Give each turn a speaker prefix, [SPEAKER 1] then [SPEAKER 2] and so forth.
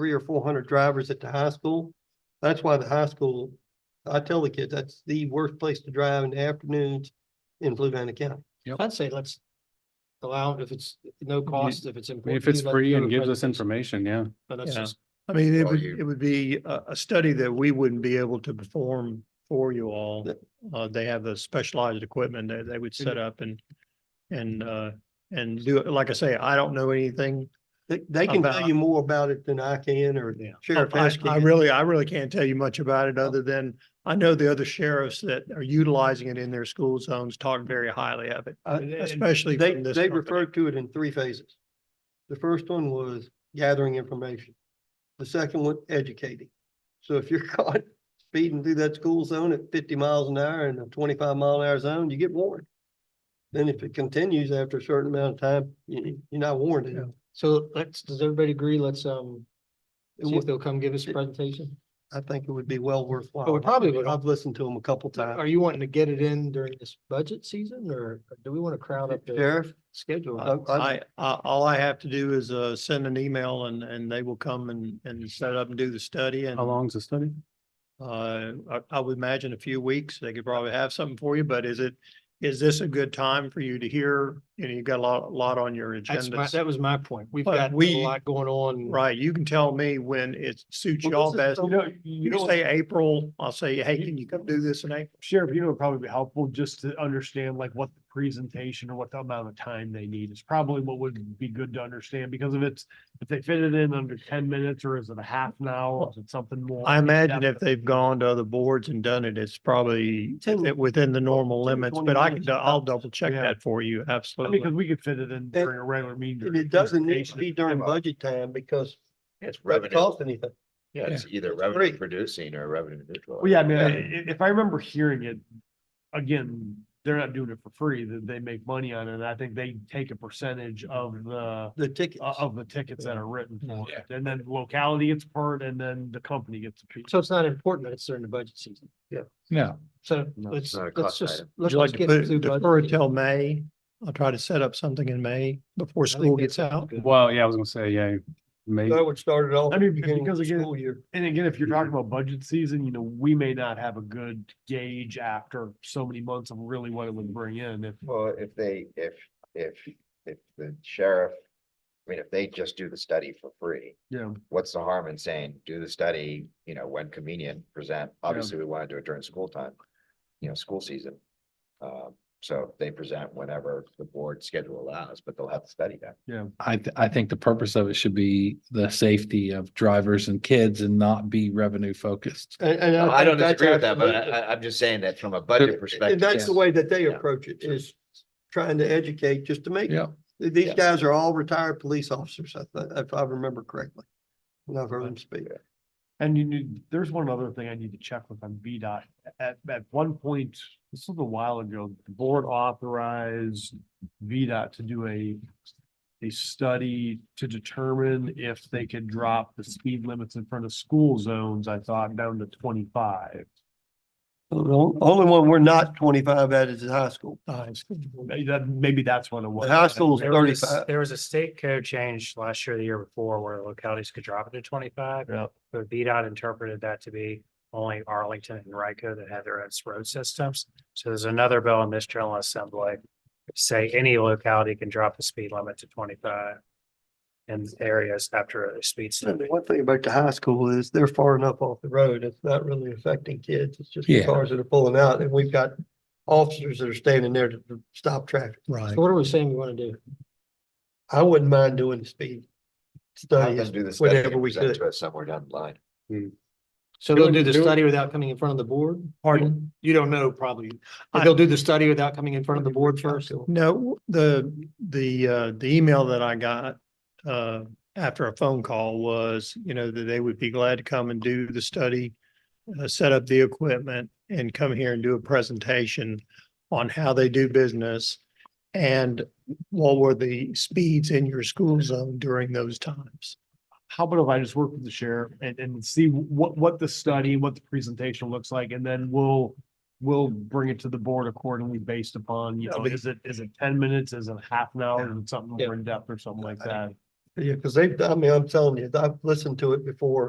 [SPEAKER 1] three or four hundred drivers at the high school. That's why the high school, I tell the kids, that's the worst place to drive in the afternoons in Fluvanna County.
[SPEAKER 2] I'd say let's allow, it if it's no cost, if it's
[SPEAKER 3] I mean,
[SPEAKER 2] important.
[SPEAKER 3] If it's
[SPEAKER 2] to you, let's
[SPEAKER 3] free
[SPEAKER 2] do
[SPEAKER 3] and
[SPEAKER 2] it,
[SPEAKER 3] gives
[SPEAKER 2] but-
[SPEAKER 3] us information, yeah.
[SPEAKER 2] But that's
[SPEAKER 4] Yeah.
[SPEAKER 2] just,
[SPEAKER 4] I mean, it
[SPEAKER 5] Or
[SPEAKER 4] would,
[SPEAKER 5] you-
[SPEAKER 4] it would be a, a study that we wouldn't be able to perform for you all.
[SPEAKER 1] Yeah.
[SPEAKER 4] Uh, they have the specialized equipment that they would
[SPEAKER 1] Mm-hmm.
[SPEAKER 4] set up and, and, uh, and do it. Like I say, I don't know anything.
[SPEAKER 1] They, they can tell
[SPEAKER 4] About-
[SPEAKER 1] you more about it than I can or
[SPEAKER 4] Yeah.
[SPEAKER 1] Sheriff
[SPEAKER 4] I,
[SPEAKER 1] Hess
[SPEAKER 4] I
[SPEAKER 1] can. Oh.
[SPEAKER 4] really, I really can't tell you much about it other than I know the other sheriffs that are utilizing it in their school zones talk very highly of it,
[SPEAKER 1] Uh, and
[SPEAKER 4] especially
[SPEAKER 1] They,
[SPEAKER 4] from this.
[SPEAKER 1] they
[SPEAKER 4] company.
[SPEAKER 1] referred to it in three phases. The first one was gathering information. The second one, educating. So if you're caught speeding through that school zone at fifty miles an hour in a twenty-five mile an hour zone, you get warned. Then if it continues after a certain amount of time, you, you're not warned.
[SPEAKER 2] Yeah.
[SPEAKER 1] anymore.
[SPEAKER 2] so let's, does everybody agree? Let's, um,
[SPEAKER 1] It
[SPEAKER 2] see if
[SPEAKER 1] would-
[SPEAKER 2] they'll come give us a
[SPEAKER 1] it-
[SPEAKER 2] presentation.
[SPEAKER 1] I think it would be well worthwhile.
[SPEAKER 2] But Oh, we probably would-
[SPEAKER 1] I've listened to them a couple
[SPEAKER 2] Are
[SPEAKER 1] times.
[SPEAKER 2] you wanting to get it in during this budget season or do we want to crowd up the
[SPEAKER 1] Sheriff,
[SPEAKER 2] schedule?
[SPEAKER 1] I, I,
[SPEAKER 4] I, I, all I have to do is, uh, send an email and, and they will come and, and set up and do the study and.
[SPEAKER 3] How long's the study?
[SPEAKER 4] Uh, I, I would imagine a few weeks, they could probably have something for you, but is it, is this a good time for you to hear? You know, you've got a lot, a lot on your
[SPEAKER 2] That's
[SPEAKER 4] agenda.
[SPEAKER 2] my, that was my point. We've
[SPEAKER 4] But
[SPEAKER 2] got
[SPEAKER 4] we-
[SPEAKER 2] a lot going on.
[SPEAKER 4] Right, you can tell me when it suits
[SPEAKER 1] Well,
[SPEAKER 4] y'all
[SPEAKER 1] this is
[SPEAKER 4] best.
[SPEAKER 1] the-
[SPEAKER 6] You know,
[SPEAKER 4] You
[SPEAKER 6] you
[SPEAKER 4] can
[SPEAKER 6] know,
[SPEAKER 4] say April, I'll say, hey, can you come do this in April?
[SPEAKER 6] Sheriff, you know, it'd probably be helpful just to understand like what the presentation or what the amount of time they need is probably what would be good to understand, because if it's, if they fit it in under ten minutes, or is it a half an hour, or is it something more?
[SPEAKER 4] I imagine if
[SPEAKER 6] in-depth?
[SPEAKER 4] they've gone to other boards and done it, it's probably
[SPEAKER 1] Ten-
[SPEAKER 4] it- within the normal
[SPEAKER 1] 10,
[SPEAKER 4] limits,
[SPEAKER 1] 20
[SPEAKER 4] but I
[SPEAKER 1] minutes
[SPEAKER 4] can, do- I'll
[SPEAKER 1] tops.
[SPEAKER 4] double check
[SPEAKER 6] Yeah.
[SPEAKER 4] that for you,
[SPEAKER 6] I mean, because
[SPEAKER 4] absolutely.
[SPEAKER 6] we could fit it in during a regular meeting.
[SPEAKER 1] and
[SPEAKER 6] during
[SPEAKER 1] it doesn't need to
[SPEAKER 6] presentation.
[SPEAKER 1] be during budget time because
[SPEAKER 5] It's
[SPEAKER 1] it doesn't
[SPEAKER 5] revenue,
[SPEAKER 1] cost anything.
[SPEAKER 5] yeah, it's either
[SPEAKER 1] free.
[SPEAKER 5] revenue producing or revenue neutral.
[SPEAKER 6] Well, yeah, I mean, if, if I remember hearing it, again, they're not doing it for free, that they make money on it, and I think they take a percentage of the
[SPEAKER 1] The tickets.
[SPEAKER 2] Uh,
[SPEAKER 6] o- of the tickets that are written
[SPEAKER 2] No.
[SPEAKER 6] for it. And then locality gets part and then the company gets a piece.
[SPEAKER 2] So it's not important that it's during the budget season.
[SPEAKER 3] No.
[SPEAKER 2] So
[SPEAKER 5] No,
[SPEAKER 2] let's,
[SPEAKER 5] it's not a
[SPEAKER 2] let's
[SPEAKER 5] cost
[SPEAKER 2] just.
[SPEAKER 5] item.
[SPEAKER 4] Would
[SPEAKER 2] let's
[SPEAKER 4] you like
[SPEAKER 2] just
[SPEAKER 4] to
[SPEAKER 2] get
[SPEAKER 4] put,
[SPEAKER 2] through budget
[SPEAKER 4] defer
[SPEAKER 2] season.
[SPEAKER 4] till May? I'll try to set up something in May
[SPEAKER 2] I
[SPEAKER 4] before
[SPEAKER 2] think
[SPEAKER 4] school
[SPEAKER 2] that's
[SPEAKER 4] gets out.
[SPEAKER 2] good.
[SPEAKER 3] Well, yeah, I was gonna say, yeah, maybe.
[SPEAKER 1] That would start it off.
[SPEAKER 6] I
[SPEAKER 1] at
[SPEAKER 6] mean,
[SPEAKER 1] the beginning of
[SPEAKER 6] because
[SPEAKER 1] the
[SPEAKER 6] again-
[SPEAKER 1] School year.
[SPEAKER 6] And again, if you're talking about budget season, you know, we may not have a good gauge after so many months of really what it would bring in. If
[SPEAKER 5] Well, if they, if, if, if the sheriff, I mean, if they just do the study for free.
[SPEAKER 6] Yeah.
[SPEAKER 5] What's the harm in saying, do the study, you know, when convenient, present, obviously we want to do it during school time, you know, school season. Um, so they present whenever the board schedule allows, but they'll have to study that.
[SPEAKER 7] I, th- I think the purpose of it should be the safety of drivers and kids and not be revenue focused.
[SPEAKER 1] And, and
[SPEAKER 5] I
[SPEAKER 1] think
[SPEAKER 5] don't
[SPEAKER 1] that's
[SPEAKER 5] disagree with that, but
[SPEAKER 1] absolutely-
[SPEAKER 5] I, I- I'm just saying that from a budget perspective.
[SPEAKER 1] And that's the way that they
[SPEAKER 5] Yeah.
[SPEAKER 1] approach it, is trying to educate just to make.
[SPEAKER 7] Yeah.
[SPEAKER 1] These
[SPEAKER 5] Yes.
[SPEAKER 1] guys are all retired police officers, I thi- if I remember correctly. And I've heard them speak.
[SPEAKER 6] And you need, there's one other thing I need to check with on VDOT. At, at one point, this was a while ago, the board authorized VDOT to do a, a study to determine if they could drop the speed limits in front of school zones, I thought, down to twenty-five.
[SPEAKER 1] The on- only one we're not twenty-five at is the high school.
[SPEAKER 6] Maybe that, maybe that's what it was.
[SPEAKER 1] The high school's
[SPEAKER 8] There was,
[SPEAKER 1] thirty-five.
[SPEAKER 8] there was a state code change last year, the year before, where localities could drop it to twenty-five.
[SPEAKER 6] Yeah.
[SPEAKER 8] But VDOT interpreted that to be only Arlington and Rico that had their own road systems. So there's another bill in this general assembly. Say any locality can drop the speed limit to twenty-five. In areas after a speed
[SPEAKER 1] And
[SPEAKER 8] study.
[SPEAKER 1] the One thing about the high school is they're far enough off the road. It's not really affecting kids. It's just the
[SPEAKER 7] Yeah.
[SPEAKER 1] cars that are pulling out and we've got officers that are standing there to to stop traffic.
[SPEAKER 4] Right.
[SPEAKER 2] So what are we saying we want to do?
[SPEAKER 1] I wouldn't mind doing the speed
[SPEAKER 5] Have
[SPEAKER 1] study.
[SPEAKER 5] them do the study
[SPEAKER 1] whenever
[SPEAKER 5] and
[SPEAKER 1] we
[SPEAKER 5] present
[SPEAKER 1] could.
[SPEAKER 5] to us Somewhere down the line.
[SPEAKER 2] So they'll do the study without coming in front of the board?
[SPEAKER 4] Pardon?
[SPEAKER 2] You don't know probably.
[SPEAKER 4] I-
[SPEAKER 2] They'll do the study without coming in front of the board first?
[SPEAKER 4] No, the, the, uh, the email that I got, uh, after a phone call was, you know, that they would be glad to come and do the study, uh, set up the equipment and come here and do a presentation on how they do business and what were the speeds in your school zone during those times.
[SPEAKER 6] how about if I just work with the sheriff and, and see what, what the study, what the presentation looks like, and then we'll, we'll bring it to the board accordingly based upon, you
[SPEAKER 4] Yeah,
[SPEAKER 6] know,
[SPEAKER 4] but-
[SPEAKER 6] is it, is it ten minutes, is it half an hour, is it something
[SPEAKER 2] Yeah.
[SPEAKER 6] more in depth or something like that?
[SPEAKER 1] Yeah, because they, I mean, I'm telling you, I've listened to it before